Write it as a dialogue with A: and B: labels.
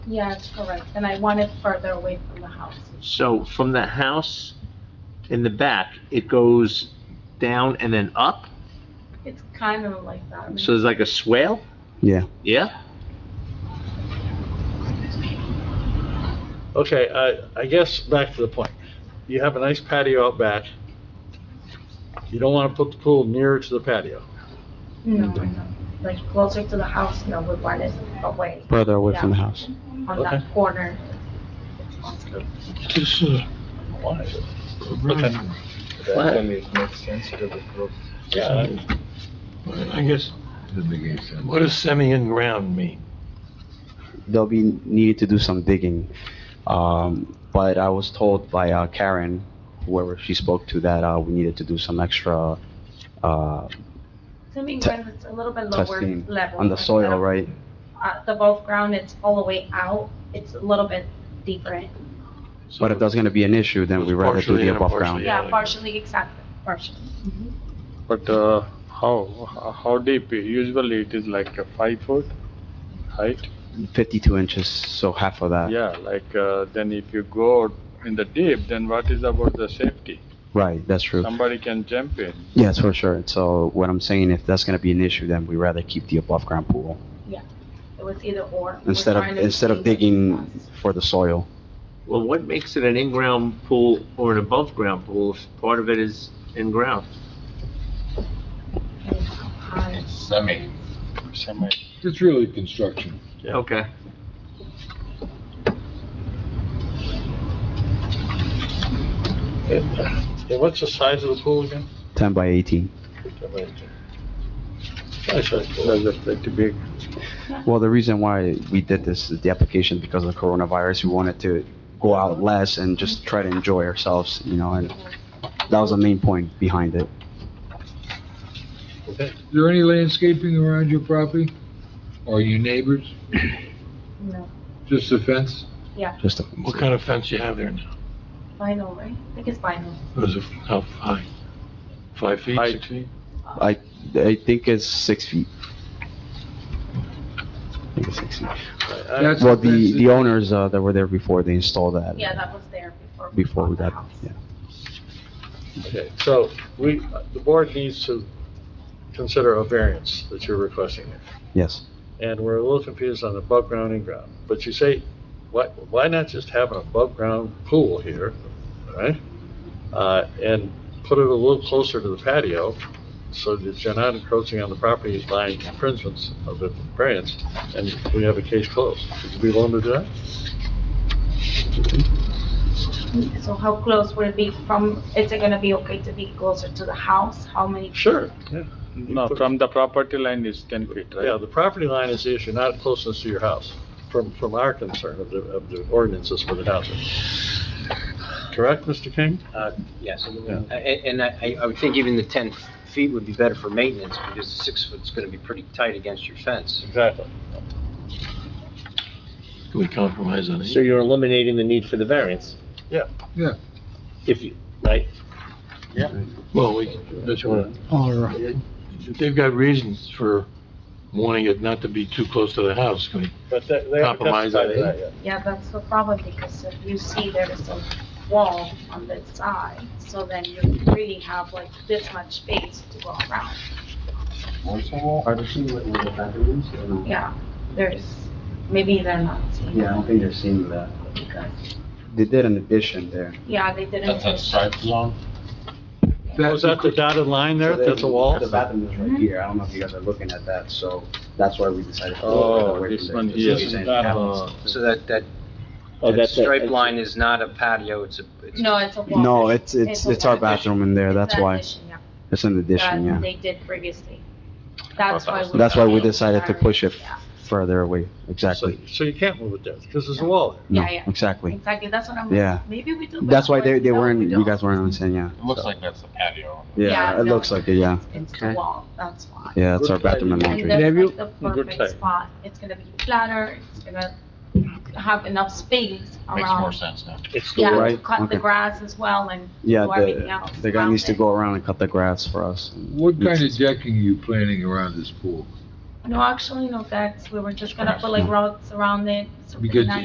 A: Yeah, it's correct, and I want it further away from the house.
B: So from the house in the back, it goes down and then up?
A: It's kind of like that. I mean,
B: So there's like a swale?
C: Yeah.
B: Yeah?
D: Okay, I, I guess back to the point. You have a nice patio out back. You don't want to put the pool nearer to the patio.
A: No, no, Mm. like closer to the house, no, we want it away
C: further away from the house.
A: on that
D: Okay.
A: corner.
D: This
E: uh,
D: is. why is it? Okay.
B: What?
D: Yeah,
E: I guess, what does semi-in-ground mean?
C: They'll be needed to do some digging. Um, but I was told by uh, Karen, whoever she spoke to, that, uh, we needed to do some extra, uh,
A: To me, when it's a little bit lower
C: testing
A: level.
C: on the
A: like
C: soil,
A: that.
C: right?
A: Uh, the above ground, it's all the way out, it's a little bit deeper. in.
C: But if that's gonna be an issue, then we'd rather do
E: Partially
C: the
E: and
C: above ground.
E: partially.
A: Yeah,
E: like-
A: partially, exactly, partially.
F: But uh, how, how deep? Usually it is like a five foot height.
C: Fifty-two inches, so half of that,
F: Yeah, like uh, then if you go in the deep, then what is about the safety?
C: right, that's true.
F: Somebody can jump in.
C: Yes, for sure. So what I'm saying, if that's gonna be an issue, then we'd rather keep the above ground pool
A: It was either or. We're
C: instead of,
A: trying to
C: instead of
A: see what's
C: digging
A: best.
C: for the soil.
B: Well, what makes it an in-ground pool or an above-ground pool if part of it is in-ground?
A: Um,
G: Semi.
F: Semi.
G: It's really construction.
B: Okay.
D: Yeah, what's the size of the pool again?
C: Ten by eighteen.
D: Nice size pool.
F: That's pretty big.
C: Well, the reason why we did this is the application because of coronavirus. We wanted to go out less and just try to enjoy ourselves, you know, and that was the main point behind it.
G: Is there any landscaping around your property? Or your neighbors?
A: No,
G: Just a fence?
C: Just a,
E: What kind of fence you have there now?
A: vinyl, right? I think it's vinyl.
E: Was it, how high? Five feet,
F: Height.
E: six feet?
C: I, I think it's six feet. I think it's six feet.
D: I-
C: Well, the, the owners, uh, that were there before, they installed that.
A: Yeah, that was there before.
C: Before we
A: bought the
C: got,
A: house.
C: yeah.
D: Okay, so we, the board needs to consider a variance that you're requesting.
C: Yes.
D: And we're a little confused on above ground and ground. But you say, why, why not just have an above ground pool here, all right? Uh, and put it a little closer to the patio so that you're not encroaching on the properties by infringements of the variance and we have a case closed. Would you be willing to do that?
A: So how close would it be from, is it gonna be okay to be closer to the house? How many?
D: Sure, yeah.
F: No, from the property line is ten feet,
D: Yeah,
F: right?
D: the property line is the issue, not closeness to your house, from, from our concern of the, of the ordinances for the housing. Correct, Mr. King?
H: Uh, Yes, and-
D: Yeah.
H: and and I I would think even the 10 feet would be better for maintenance, because the six foot's going to be pretty tight against your fence.
D: Exactly.
E: Can we compromise on
I: So
E: it?
I: you're eliminating the need for the variance?
D: Yeah.
G: Yeah.
I: If you, right,
E: Well, we, that's what,
C: All right.
E: they've got reasons for wanting it not to be too close to the house. Can we-
D: But they, they haven't
E: Compromise, I
D: testified to that yet.
A: Yeah, that's the problem, because if you see there is a wall on this side, so then you really have like this much space to go around.
C: Are they seeing what the bathrooms?
A: Yeah, there's, maybe they're not seeing.
C: Yeah, I don't think they're seeing that.
A: because-
C: They did an addition there.
A: Yeah, they didn't.
G: That's a striped zone?
D: Oh, is that the dotted line there?
C: So they-
D: That's a wall?
C: The bathroom is right here, I don't know if you guys are looking at that, so that's why we decided. to go
F: Oh,
C: away
F: this
C: from
F: one
C: there.
F: here.
C: So you're saying
F: That
C: that
F: one.
C: one's-
H: So that that
I: oh,
H: that
I: that's. a-
H: stripe line is not a patio, it's a... it's a-
A: No, it's a wall.
C: No, it's, it's, it's our
A: It's an
C: bathroom in there, that's
A: It's an
C: why,
A: addition, yeah,
C: it's an addition,
A: That
C: yeah.
A: they did previously. That's why.
C: That's why we decided to push it
A: Yeah.
C: further away,
D: So,
C: exactly.
D: so you can't move it there, because there's a wall there.
C: No,
A: Yeah, yeah.
C: exactly.
A: Exactly, that's what I'm,
C: Yeah.
A: maybe we do. but
C: That's why they, they
A: no, we
C: weren't, you
A: don't.
C: guys weren't understanding, yeah.
G: It looks like that's the patio.
A: Yeah,
C: Yeah, it
A: no.
C: looks like it, yeah.
A: It's the
B: Okay.
A: wall, that's why.
C: Yeah, it's our
D: Good idea.
C: bathroom and
A: And
C: laundry.
A: that's
F: Have you-
A: like the
F: Good
A: perfect
F: side.
A: spot. It's gonna be flatter, it's gonna have enough space
G: Makes more
A: around.
G: sense now.
D: It's the
A: Yeah,
D: wall.
A: to
C: Right,
A: cut the
C: okay.
A: grass as well and
C: Yeah,
A: do everything
C: the,
A: else.
C: the guy
A: around
C: needs to
A: it.
C: go around and cut the grass for us.
G: What kind of decking are you planning around this pool?
A: No, actually, no, that's, we were just gonna put like rods around it. so it's
G: Because
A: not-